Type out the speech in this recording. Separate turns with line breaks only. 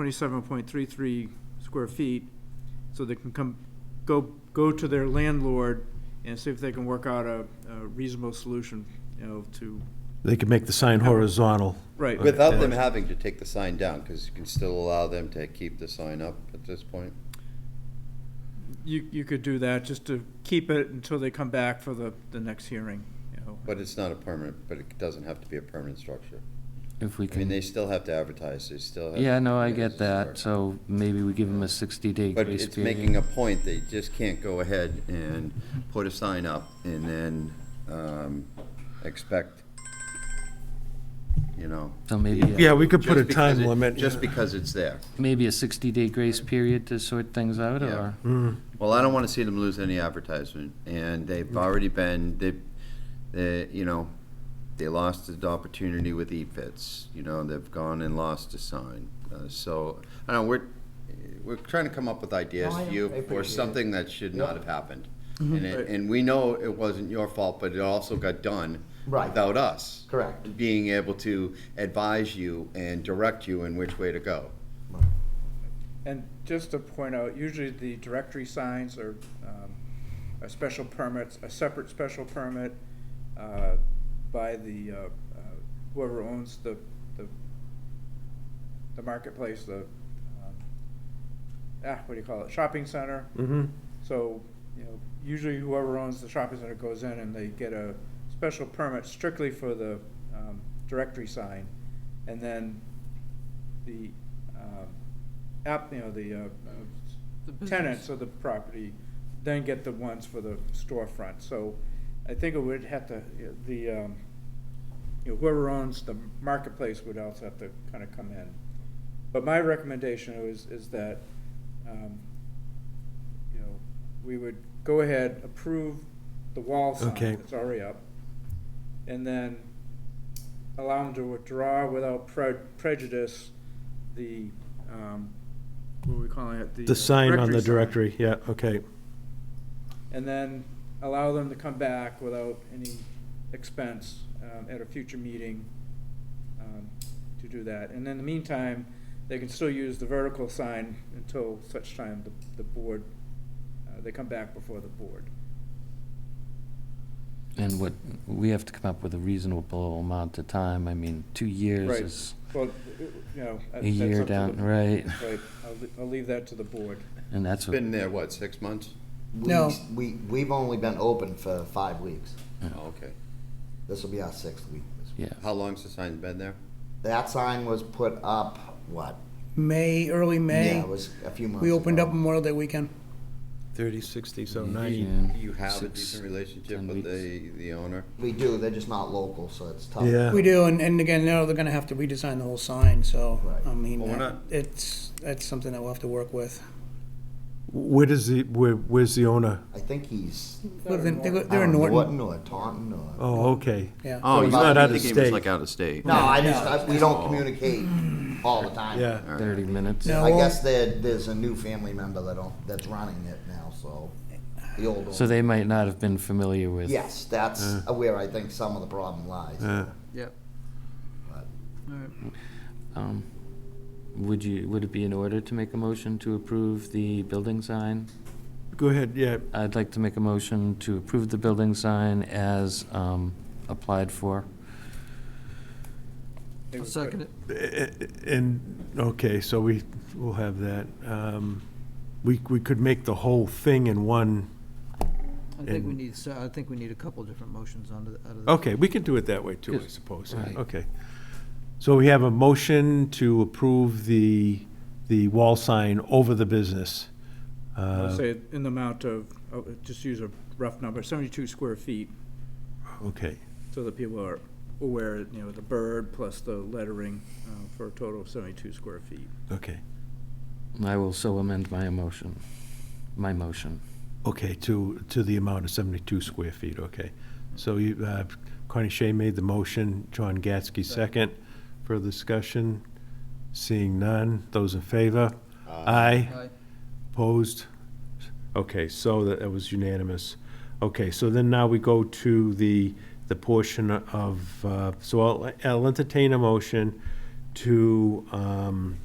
twenty-seven point three-three square feet, so they can come, go, go to their landlord and see if they can work out a, a reasonable solution, you know, to,
They could make the sign horizontal.
right.
Without them having to take the sign down, because you can still allow them to keep the sign up at this point.
You, you could do that, just to keep it until they come back for the, the next hearing, you know.
But it's not a permanent, but it doesn't have to be a permanent structure.
If we
I mean,
can,
they still have to advertise, they still have.
yeah, no, I
Yeah,
get
it's
that,
hard.
so maybe we give them a sixty-day
But
grace
it's making
period.
a point, they just can't go ahead and put a sign up and then um, expect, you know.
So maybe,
Yeah,
a-
we could put a
just because
time
it-
limit.
Just because it's there.
maybe a sixty-day grace period to sort things out,
Yeah.
or?
Well, I don't want to see them lose any advertisement, and
Mm.
they've already been, they, they, you know, they lost the opportunity with E-Fits, you know, they've gone and lost a sign. Uh, So, I don't know, we're, we're trying to come up with ideas
No, I-
to you
I
for
appreciate it. Mm-hmm.
something that should not have happened. And, it-
Right.
and we know it wasn't your fault, but it also got done
Right.
without us.
Correct.
Being able to advise you and direct you in which way to go.
And just to point out, usually the directory signs are, um, are special permits, a separate special permit, uh, by the, uh, uh, whoever owns the, the, the marketplace, the, um, ah, what do you call it, shopping center.
Mm-hmm.
So, you know, usually whoever owns the shopping center goes in and they get a special permit strictly for the um, directory sign. And then the um, app, you know, the uh, uh, tenants of the property then get the ones for the storefront. So I think it would have to, the, um, you know, whoever owns the marketplace would also have to kind of come in. But my recommendation is, is that, um, you know, we would go ahead, approve the wall
Okay.
sign that's already up, and then allow them to withdraw without pre- prejudice the, um, what are we calling it?
The
uh,
sign on the
sign.
directory, yeah, okay.
And then allow them to come back without any expense um, at a future meeting um, to do that. And in the meantime, they can still use the vertical sign until such time the, the board, uh, they come back before the board.
And what, we have to come up with a reasonable amount of time, I mean, two years
Right.
is
Well, uh, you know.
a
that's up
year
to
down,
the-
right?
Right, I'll, le- I'll leave that to the board.
And that's what,
Been there, what, six months?
No. We, we've only been open for five weeks.
Oh, Okay.
This will be our sixth week. this week.
yeah,
How long's the sign been there?
That sign was put up, what?
May, early
Yeah,
May.
it was a few months
We opened up
ago.
Memorial Day weekend.
Thirty, sixty, so
Yeah.
ninety.
Do you have a
Six,
decent relationship
ten
with
weeks.
the, the owner?
We do, they're just not local, so it's tough.
Yeah.
We do, and, and again, now they're gonna have to redesign the whole sign, so,
Right.
I mean,
Well, we're
that-
not-
it's, that's something that we'll have to work with.
Where does the, where, where's the owner?
I think he's,
Well, then They go-
I
They're in
don't know,
Norton,
Uh, Norton or Taunton or.
Oh, okay.
yeah.
Oh,
he's
he's
not
not
out of
thinking he was
state.
like out of state.
No, I just, I- we don't communicate all the time.
Yeah.
All right.
thirty minutes.
No.
I guess there, there's a new family member that, don't- that's running it now, so, the old
So
one.
they might not have been familiar with.
Yes, that's where I think some of the problem lies.
Uh,
Yep.
But-
Um, Would you, would it be in order to make a motion to approve the building sign?
Go ahead, yeah,
I'd like to make a motion to approve the building sign as um, applied for.
second it.
A- a- and, okay, so we, we'll have that. Um, We, we could make the whole thing in one,
I think we
And-
need, so- I think we need a couple different motions under, out of. the-
okay, we can do it that way too, I
Yes.
suppose,
Right.
okay. So we have a motion to approve the, the wall sign over the business.
I'll
Uh,
say in the amount of, oh, just use a rough number, seventy-two square feet,
Uh, Okay,
so that people are aware, you know, the bird plus the lettering, uh, for a total of seventy-two square feet.
okay,
I will so amend my emotion, my motion.
okay, to, to the amount of 72 square feet, okay. So you, uh, Connie Shea made the motion, John Gatsky second. Further discussion? Seeing none, those in favor?
Uh,
Aye.
Aye.
Opposed? Okay, so that that was unanimous. Okay, so then now we go to the, the portion of, uh, so I'll I'll entertain a motion to um,